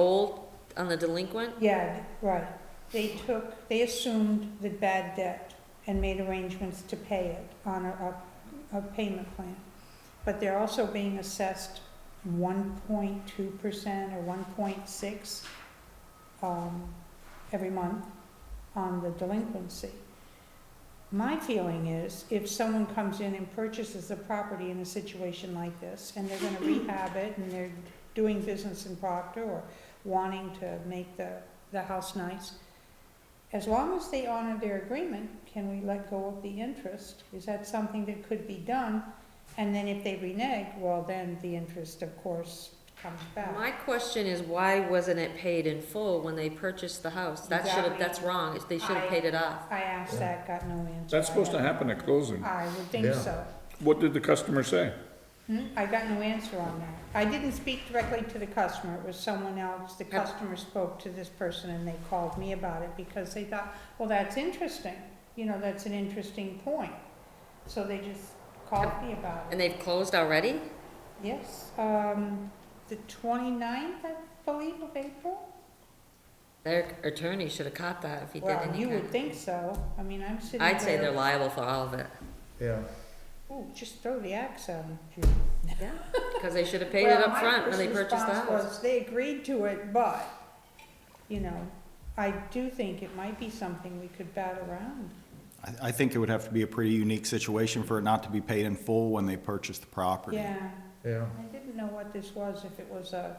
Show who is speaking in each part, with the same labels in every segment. Speaker 1: old on the delinquent?
Speaker 2: Yeah, right. They took, they assumed the bad debt and made arrangements to pay it on a, a, a payment plan. But they're also being assessed one point two percent or one point six, um, every month on the delinquency. My feeling is, if someone comes in and purchases a property in a situation like this, and they're gonna rehab it, and they're doing business in Proctor, or wanting to make the, the house nice. As long as they honor their agreement, can we let go of the interest? Is that something that could be done? And then if they renege, well, then the interest, of course, comes back.
Speaker 1: My question is, why wasn't it paid in full when they purchased the house? That should have, that's wrong, they should have paid it off.
Speaker 2: I asked that, got no answer.
Speaker 3: That's supposed to happen at closing.
Speaker 2: I would think
Speaker 4: Yeah.
Speaker 2: so.
Speaker 3: What did the customer say?
Speaker 2: Hmm, I got no answer on that. I didn't speak directly to the customer, it was someone else. The customer spoke to this person and they called me about it because they thought, well, that's interesting. You know, that's an interesting point. So they just called me about it.
Speaker 1: And they've closed already?
Speaker 2: Yes, um, the 29th, I believe, of April?
Speaker 1: Their attorney should have caught that if he did
Speaker 2: Well,
Speaker 1: any
Speaker 2: you would
Speaker 1: kind.
Speaker 2: think so. I mean, I'm sitting there.
Speaker 1: I'd say they're liable for all of it.
Speaker 4: Yeah,
Speaker 2: Ooh, just throw the axe at 'em, Judy.
Speaker 1: Yeah. Because they should have paid it
Speaker 2: Well,
Speaker 1: up
Speaker 2: my
Speaker 1: front when they
Speaker 2: first
Speaker 1: purchased the
Speaker 2: response
Speaker 1: house.
Speaker 2: was, They agreed to it, but, you know, I do think it might be something we could bat around.
Speaker 5: I, I think it would have to be a pretty unique situation for it not to be paid in full when they purchase the property.
Speaker 2: Yeah,
Speaker 4: yeah.
Speaker 2: I didn't know what this was, if it was a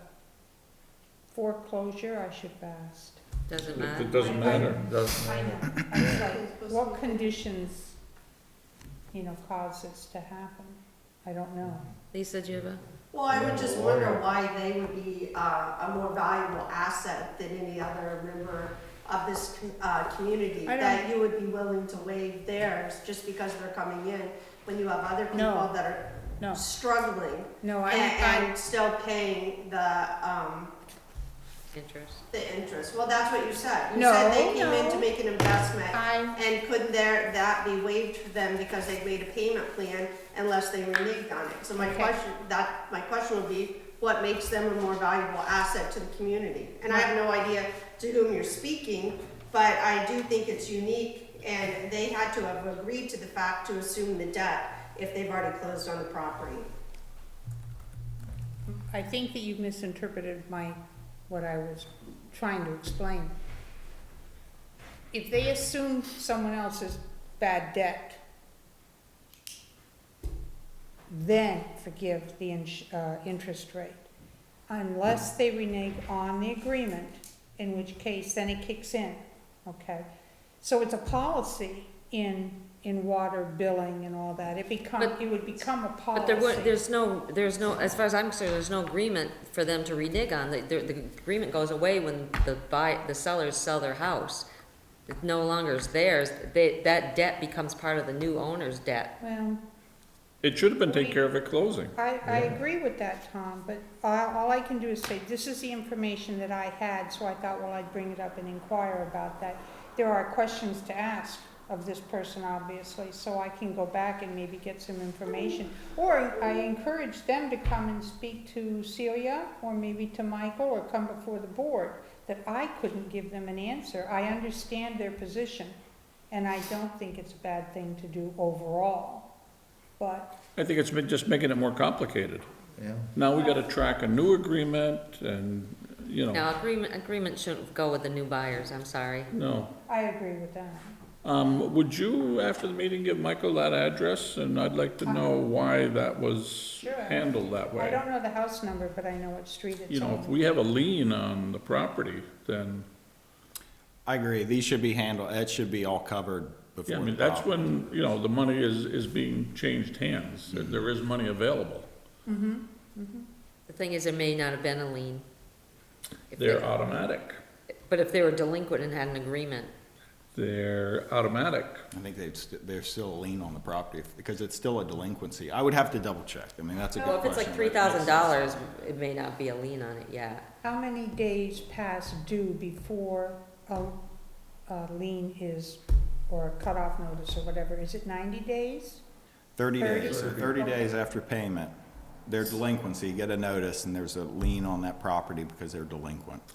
Speaker 2: foreclosure, I should have asked.
Speaker 1: Doesn't
Speaker 3: It it
Speaker 1: matter.
Speaker 3: doesn't matter.
Speaker 4: Doesn't
Speaker 2: I
Speaker 4: matter.
Speaker 2: know, I was like, what conditions, you know, cause this to happen? I don't know.
Speaker 1: Lisa, do you have a?
Speaker 6: Well, I would just wonder why they would be uh, a more valuable asset than any other member of this com- uh, community.
Speaker 2: I don't-
Speaker 6: That you would be willing to waive theirs just because they're coming in, when you have other
Speaker 2: No.
Speaker 6: people that
Speaker 2: No,
Speaker 6: are struggling
Speaker 2: no,
Speaker 6: a-
Speaker 2: I, I,
Speaker 6: and still paying the, um,
Speaker 1: Interest.
Speaker 6: the interest. Well, that's what you said. You
Speaker 2: No,
Speaker 6: said they came in
Speaker 2: no.
Speaker 6: to make an investment.
Speaker 2: I,
Speaker 6: And couldn't there, that be waived for them because they made a payment plan unless they reneged on it? So my
Speaker 2: Okay.
Speaker 6: question, that, my question would be, what makes them a more valuable asset to the community? And I have no idea to whom you're speaking, but I do think it's unique and they had to have agreed to the fact to assume the debt if they've already closed on the property.
Speaker 2: I think that you misinterpreted my, what I was trying to explain. If they assumed someone else's bad debt, then forgive the ins- uh, interest rate, unless they renege on the agreement, in which case then it kicks in, okay? So it's a policy in, in water billing and all that, it become,
Speaker 1: But-
Speaker 2: it would become a policy.
Speaker 1: But there were, there's no, there's no, as far as I'm concerned, there's no agreement for them to renege on. The, the the agreement goes away when the buy, the sellers sell their house. It no longer is theirs. They, that debt becomes part of the new owner's debt.
Speaker 2: Well,
Speaker 3: It should have been taken care of at closing.
Speaker 2: I, I agree with that, Tom, but all, all I can do is say, this is the information that I had, so I thought, well, I'd bring it up and inquire about that. There are questions to ask of this person, obviously, so I can go back and maybe get some information. Or I encourage them to come and speak to Celia, or maybe to Michael, or come before the board, that I couldn't give them an answer. I understand their position, and I don't think it's a bad thing to do overall, but
Speaker 3: I think it's been just making it more complicated.
Speaker 4: Yeah,
Speaker 3: Now we gotta track a new agreement and, you know,
Speaker 1: Now, agreement, agreement shouldn't go with the new buyers, I'm sorry.
Speaker 3: no.
Speaker 2: I agree with that.
Speaker 3: Um, would you, after the meeting, give Michael that address? And I'd like to know why that was
Speaker 2: Um, Sure.
Speaker 3: handled that
Speaker 2: I
Speaker 3: way.
Speaker 2: don't know the house number, but I know what street it's on.
Speaker 3: You know, if we have a lien on the property, then,
Speaker 5: I agree, these should be handled, that should be all covered
Speaker 3: yeah,
Speaker 5: before
Speaker 3: I
Speaker 5: the
Speaker 3: mean, that's
Speaker 5: property.
Speaker 3: when, you know, the money is, is being changed hands. There- There is money available.
Speaker 1: The thing is, there may not have been a lien. If they-
Speaker 3: They're automatic.
Speaker 1: But if they were delinquent and had an agreement,
Speaker 3: They're automatic.
Speaker 5: I think they've, st- they're still a lien on the property, because it's still a delinquency. I would have to double check, I mean, that's a good
Speaker 1: well, if
Speaker 5: question.
Speaker 1: it's like
Speaker 5: but
Speaker 1: three
Speaker 5: yes.
Speaker 1: thousand dollars, it may not be a lien on it yet.
Speaker 2: How many days past due before a, a lien is, or a cutoff notice or whatever? Is it ninety days?
Speaker 5: Thirty
Speaker 2: Thirty.
Speaker 5: days, so thirty days after payment, their delinquency, get a notice, and there's a lien on that property because they're delinquent.